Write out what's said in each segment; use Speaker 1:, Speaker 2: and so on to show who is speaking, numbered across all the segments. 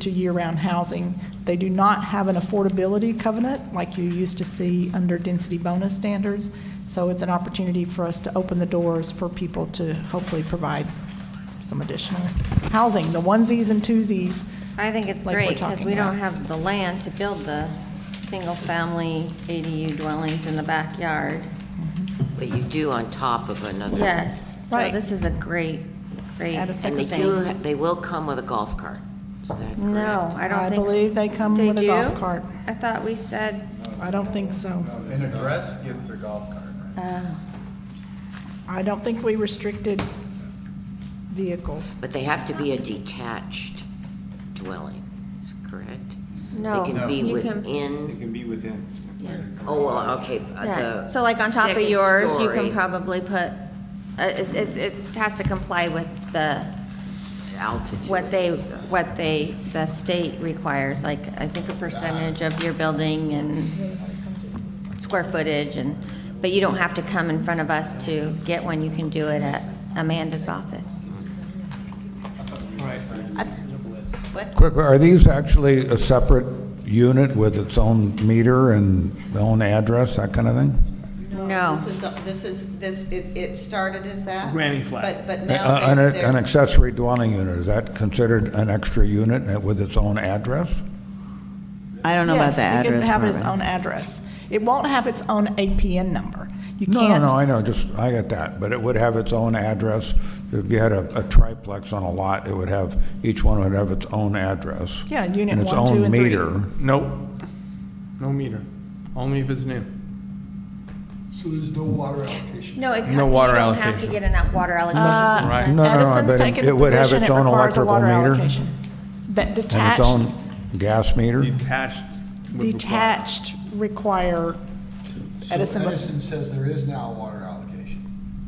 Speaker 1: to year-round housing. They do not have an affordability covenant like you used to see under density bonus standards. So it's an opportunity for us to open the doors for people to hopefully provide some additional housing, the onesies and twosies.
Speaker 2: I think it's
Speaker 1: like we're
Speaker 2: great, because
Speaker 1: talking
Speaker 2: we don't
Speaker 1: about.
Speaker 2: have the land to build the single-family ADU dwellings in the backyard.
Speaker 3: But you do on top of another.
Speaker 2: Yes, so
Speaker 1: Right.
Speaker 2: this is a great, great
Speaker 1: Add a
Speaker 3: And they
Speaker 1: Second
Speaker 3: do,
Speaker 2: thing.
Speaker 3: they will come with a golf cart. Is that correct?
Speaker 2: No, I
Speaker 1: I
Speaker 2: don't think.
Speaker 1: believe they come
Speaker 2: They
Speaker 1: with a golf
Speaker 2: do?
Speaker 1: cart.
Speaker 2: I thought we said,
Speaker 1: I don't think so. Uh,
Speaker 4: An address gets a golf cart.
Speaker 1: I don't think we restricted vehicles.
Speaker 3: But they have to be a detached dwelling, is correct?
Speaker 2: No,
Speaker 3: They can be
Speaker 2: you can-
Speaker 3: within,
Speaker 5: It can be within.
Speaker 3: oh, well, okay. uh,
Speaker 6: Yeah,
Speaker 3: the
Speaker 6: so like on top of
Speaker 3: second
Speaker 6: yours, you
Speaker 3: story
Speaker 6: can probably put, uh, it's, it's, it has to comply with the,
Speaker 3: Altitude.
Speaker 6: what they,
Speaker 3: and stuff.
Speaker 6: what they, the state requires, like, I think a percentage of your building and square footage and, but you don't have to come in front of us to get one, you can do it at Amanda's office.
Speaker 7: Quick, are these actually a separate unit with its own meter and own address, that kind of thing?
Speaker 6: No.
Speaker 8: This is, uh, this is, this, it, it started as that.
Speaker 9: Granny flat.
Speaker 8: But,
Speaker 7: Uh,
Speaker 8: but now.
Speaker 7: An
Speaker 8: they-
Speaker 7: an
Speaker 8: they're-
Speaker 7: accessory dwelling unit, is that considered an extra unit with its own address?
Speaker 10: I don't know about
Speaker 1: Yes,
Speaker 10: the
Speaker 1: It
Speaker 10: address.
Speaker 1: can have its
Speaker 10: Barbara.
Speaker 1: own address. It won't have its own APN number. You
Speaker 7: No,
Speaker 1: can't.
Speaker 7: no, I know, just, I get that, but it would have its own address. If you had a a triplex on a lot, it would have, each one would have its own address.
Speaker 1: Yeah, unit
Speaker 7: and its
Speaker 1: one, two,
Speaker 7: own
Speaker 1: and three.
Speaker 7: meter.
Speaker 5: Nope. No meter. Only if it's new.
Speaker 4: So there's no water allocation?
Speaker 6: No, it, co- you
Speaker 5: No water
Speaker 6: don't have to
Speaker 5: allocation.
Speaker 6: get enough water
Speaker 1: Uh,
Speaker 6: allocation.
Speaker 5: Right.
Speaker 7: No, no, no, I
Speaker 1: Edison's
Speaker 7: bet
Speaker 1: taken
Speaker 7: it-
Speaker 1: the
Speaker 7: it would have
Speaker 1: position
Speaker 7: its
Speaker 1: it
Speaker 7: own
Speaker 1: requires a
Speaker 7: electrical
Speaker 1: water
Speaker 7: meter
Speaker 1: allocation. That
Speaker 7: and its
Speaker 1: detached,
Speaker 7: own gas meter.
Speaker 5: Detached. would require-
Speaker 1: detached require
Speaker 4: So
Speaker 1: Edison.
Speaker 4: Edison says there is now a water allocation.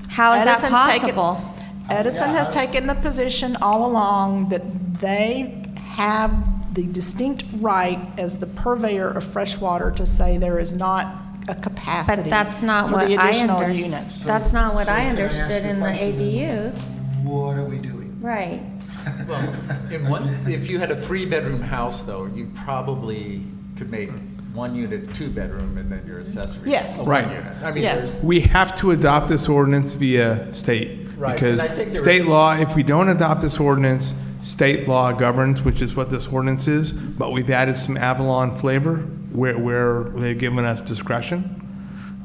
Speaker 6: How is that
Speaker 1: Edison's taken-
Speaker 6: possible?
Speaker 1: Edison has taken the position all along that they have the distinct right as the purveyor of fresh water to say there is not a capacity
Speaker 6: But that's not
Speaker 1: for
Speaker 6: what
Speaker 1: the
Speaker 6: I
Speaker 1: additional
Speaker 6: under,
Speaker 1: units.
Speaker 6: that's not what
Speaker 4: So
Speaker 6: I
Speaker 4: can I ask
Speaker 6: understood
Speaker 4: you a
Speaker 6: in the
Speaker 4: question?
Speaker 6: ADUs.
Speaker 4: What are we doing?
Speaker 6: Right.
Speaker 11: Well, in one, if you had a three-bedroom house, though, you probably could make one unit two-bedroom and then your accessory.
Speaker 1: Yes.
Speaker 11: a one
Speaker 5: Right.
Speaker 11: unit. I mean,
Speaker 1: Yes.
Speaker 11: there's,
Speaker 5: We have to adopt this ordinance via state.
Speaker 11: Right,
Speaker 5: Because
Speaker 11: and I think there
Speaker 5: state
Speaker 11: was-
Speaker 5: law, if we don't adopt this ordinance, state law governs, which is what this ordinance is. But we've added some Avalon flavor where, where they've given us discretion.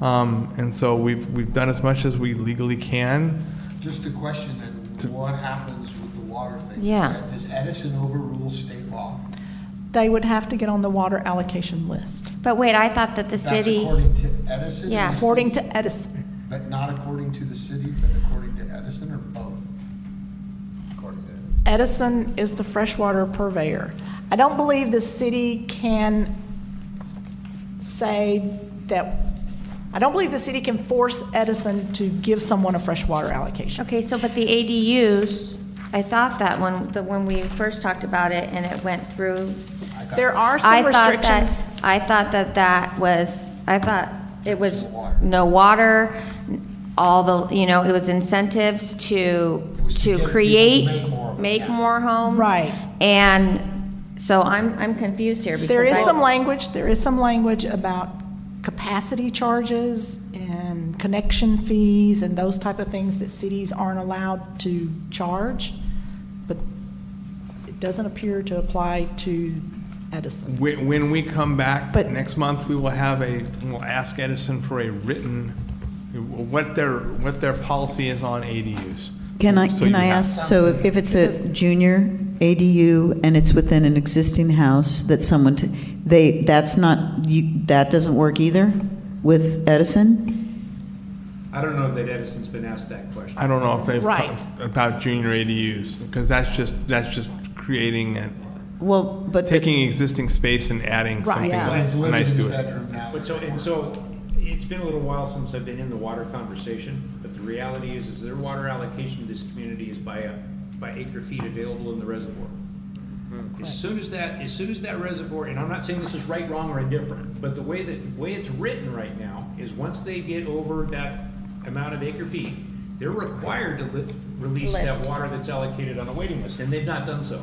Speaker 5: Um, and so we've, we've done as much as we legally can.
Speaker 4: Just a question then, what happens with the water thing?
Speaker 6: Yeah.
Speaker 4: Does Edison overrule state law?
Speaker 1: They would have to get on the water allocation list,
Speaker 6: But wait, I thought that the
Speaker 4: That's
Speaker 6: city,
Speaker 4: according to Edison? or
Speaker 6: Yeah.
Speaker 4: the city?
Speaker 1: according to Edison.
Speaker 4: But not according to the city, but according to Edison or both?
Speaker 11: according to
Speaker 1: Edison is the freshwater purveyor. I don't believe the city can say that, I don't believe the city can force Edison to give someone a freshwater allocation.
Speaker 6: okay, so but the ADUs, I thought that when, the, when we first talked about it and it went through.
Speaker 1: There are
Speaker 6: I
Speaker 1: some
Speaker 6: thought
Speaker 1: restrictions.
Speaker 6: that, I thought that that was, I thought it was no water, all the, you know, it was incentives to,
Speaker 4: It was to get
Speaker 6: to
Speaker 4: people to
Speaker 6: create,
Speaker 4: make more of it,
Speaker 6: make
Speaker 4: yeah.
Speaker 6: more homes.
Speaker 1: Right.
Speaker 6: And so I'm, I'm confused here because.
Speaker 1: There is
Speaker 6: I-
Speaker 1: some language, there is some language about capacity charges and connection fees and those type of things that cities aren't allowed to charge, but it doesn't appear to apply to Edison.
Speaker 5: When, when we come back
Speaker 1: But-
Speaker 5: next month, we will have a, we'll ask Edison for a written, what their, what their policy is on ADUs.
Speaker 10: Can I,
Speaker 5: So
Speaker 10: can
Speaker 5: you
Speaker 10: I
Speaker 5: have-
Speaker 10: ask, so if if it's a junior ADU and it's within an existing house that someone, t- they, that's not, you- that doesn't work either with Edison?
Speaker 9: I don't know that Edison's been asked that question.
Speaker 5: I don't know if they've
Speaker 1: Right.
Speaker 5: talked about junior ADUs, because that's just, that's just creating and
Speaker 10: Well, but. the-
Speaker 5: taking existing space and adding something
Speaker 1: yeah.
Speaker 4: Someone's
Speaker 5: nice
Speaker 4: living in the
Speaker 5: to it.
Speaker 4: bedroom now.
Speaker 9: But so, and so, it's been a little while since I've been in the water conversation, but the reality is, is their water allocation to this community is by, uh, by acre feet available in the reservoir. As soon as that, as soon as that reservoir, and I'm not saying this is right, wrong, or indifferent, but the way that, way it's written right now is once they get over that amount of acre feet, they're required to li- release that water that's allocated on a waiting list, and they've not done so.